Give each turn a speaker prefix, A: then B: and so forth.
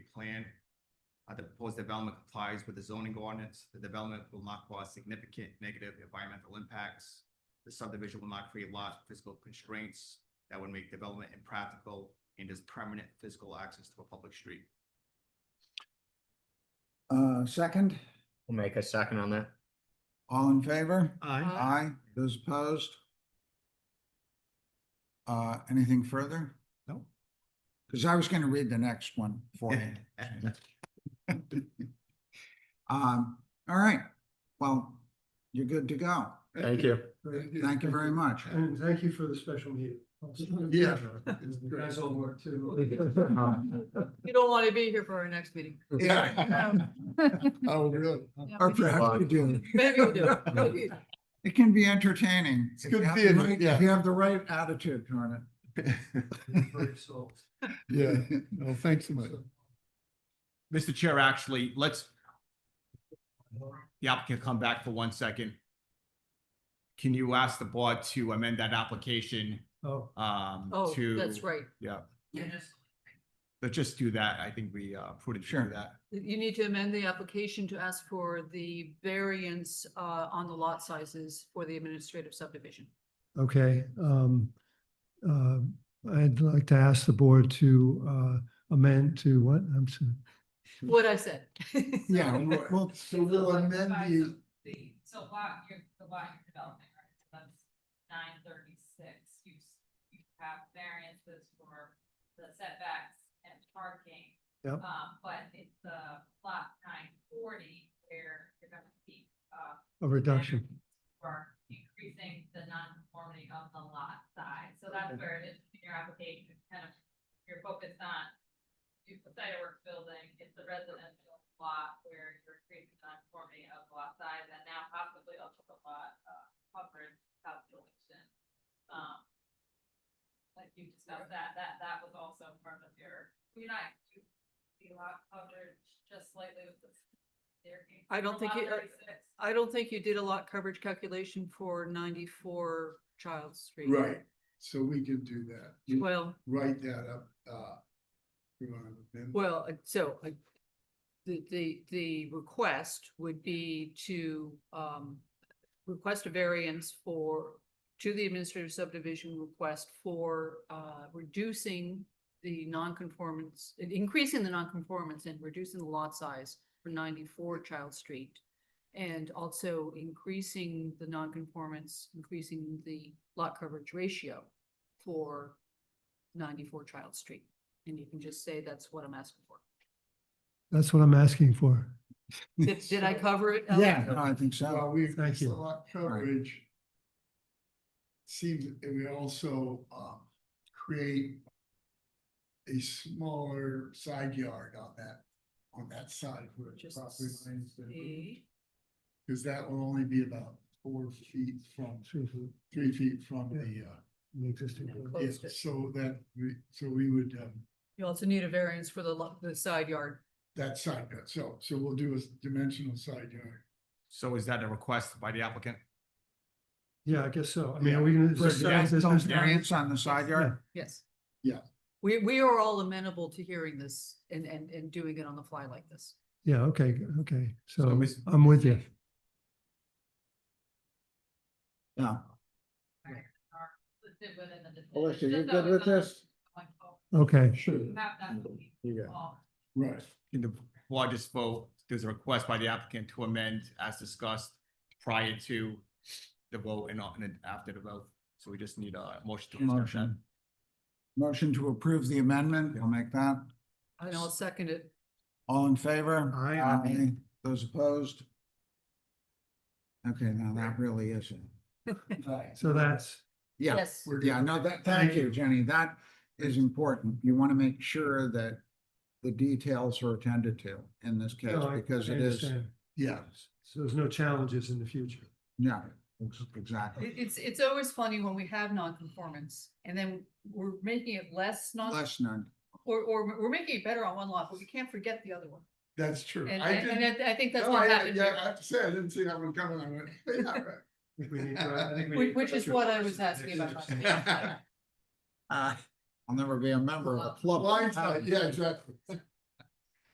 A: plan. Uh, the proposed development complies with the zoning ordinance. The development will not cause significant negative environmental impacts. The subdivision will not create large physical constraints that would make development impractical and is permanent physical access to a public street.
B: Uh, second,
C: We'll make a second on that.
B: all in favor?
D: Aye.
B: Aye, those opposed? Uh, anything further?
A: No.
B: Because I was gonna read the next one for you. Um, all right, well, you're good to go.
C: Thank you.
B: Thank you very much.
D: And thank you for the special meeting.
B: Yeah.
D: You guys all work too.
C: Um,
E: You don't want to be here for our next meeting.
B: Yeah.
D: Oh, really?
E: Yeah,
B: Or
E: maybe-
B: perhaps you do.
E: Maybe we do. Maybe.
B: It can be entertaining.
D: It's
B: if
D: good
B: you have the
D: theater,
B: right-
D: yeah.
B: If you have the right attitude toward it.
D: Yeah, well, thanks so much.
A: Mr. Chair, actually, let's, the applicant come back for one second. Can you ask the board to amend that application,
D: Oh,
A: um,
E: Oh,
A: to?
E: that's right.
A: Yeah.
E: Yes.
A: Let's just do that. I think we, uh, prudent to
B: Sure.
A: do that.
E: You need to amend the application to ask for the variance uh, on the lot sizes for the administrative subdivision.
D: okay. Um, uh, I'd like to ask the board to, uh, amend to what? I'm sorry.
E: What I said.
B: Yeah, we'll- we'll,
D: So we'll amend the,
F: The, so lot, you're, the lot you're developing, right, so that's nine thirty-six, you, s- you have variances for the setbacks and parking.
D: Yep.
F: Um, but it's the lot nine forty where you're gonna keep, uh,
D: a reduction.
F: for increasing the non-conformity of the lot size, so that's where it is in your application, it's kind of, you're focused on. You put site work building, it's the residential lot where you're creating the non-conformity of lot size, and now possibly also the lot, uh, coverage calculation. Um. Like you discussed that, that, that was also part of your, you're not, you, the lot coverage just slightly with the.
E: I don't think uh,
F: Lot
E: you- I-
F: 36.
E: I don't think you did a lot coverage calculation for ninety-four Child Street.
G: Right, so we can do that. You
E: Well,
G: write that up, uh. you wanna amend-
E: well, uh, so uh, the, the, the request would be to um, request a variance for, to the administrative subdivision request for uh, reducing the nonconformance, in- increasing the nonconformance and reducing the lot size for ninety-four Child Street. And also increasing the nonconformance, increasing the lot coverage ratio for ninety-four Child Street. And you can just say that's what I'm asking for.
D: That's what I'm asking for.
E: Did, did I cover
D: Oh.
E: it? Alex?
B: yeah, no, I uh, think so.
G: Well, we,
D: Thank
G: it's a
D: you.
G: lot coverage. Seems, and we also, um, create. A smaller side yard on that, on that side where the
E: Just
G: property lines,
E: see.
G: because that will only be about four feet from,
D: Three feet,
G: three feet from the, uh.
D: the existing.
E: Yeah,
D: building.
E: close.
G: yeah,
E: Closed it.
G: so that, we so we would, um.
E: You also need a variance for the, lo- the side yard.
G: That side yard, so, so we'll do a s- dimensional side yard.
A: So is that a request by the applicant?
D: Yeah, I guess so. I mean, are
G: Yeah.
D: we gonna?
G: For
D: is there-
A: variance,
D: is there-
B: Those variants on the side yard?
E: Yes.
G: Yeah.
E: We, we are all amenable to hearing this and, and, and doing it on the fly like this.
D: Yeah, okay, okay.
A: So
D: So
A: Ms.
D: I'm with you.
B: Yeah.
F: listed within the. decision.
B: Melissa, you
F: Just
B: good
F: so
B: with
F: it's not
B: this?
F: going forward.
D: Okay.
G: Sure.
F: You have that.
C: You got
F: all.
G: Right,
A: Can the board just vote, there's a request by the applicant to amend as discussed prior to the vote and not- and then after the vote. So we just need a motion to accept that.
B: Motion. Motion to approve the amendment, I'll make that.
E: And I'll second it.
B: All in favor?
D: Aye.
B: Aye. Those opposed? Okay, now that really is it.
G: right.
D: So that's,
B: Yeah,
E: Yes.
G: We're-
B: yeah, no, that, thank you, Jenny. That is important. You want to make sure that the details are attended to in this case
D: no, I-
B: because
D: I
B: it is,
D: understand.
G: Yeah,
D: So there's no challenges in the future.
B: yeah, ex- exactly.
E: It- It's, it's always funny when we have non-conformance and then we're making it less non,
B: Less known.
E: or, or we're making it better on one lot, but we can't forget the other one.
G: that's true.
E: And,
G: I
E: and
G: didn't-
E: and I I think that's
G: no,
E: what
G: I-
E: happened
G: Yeah, I
E: here.
G: have to say, I didn't see that one coming. I went, yeah, right.
D: I think we need to- I think we
E: Which-
D: need-
E: which is what I was asking about.
B: Uh, I'll never be a member of the club.
G: Blindside, yeah, exactly.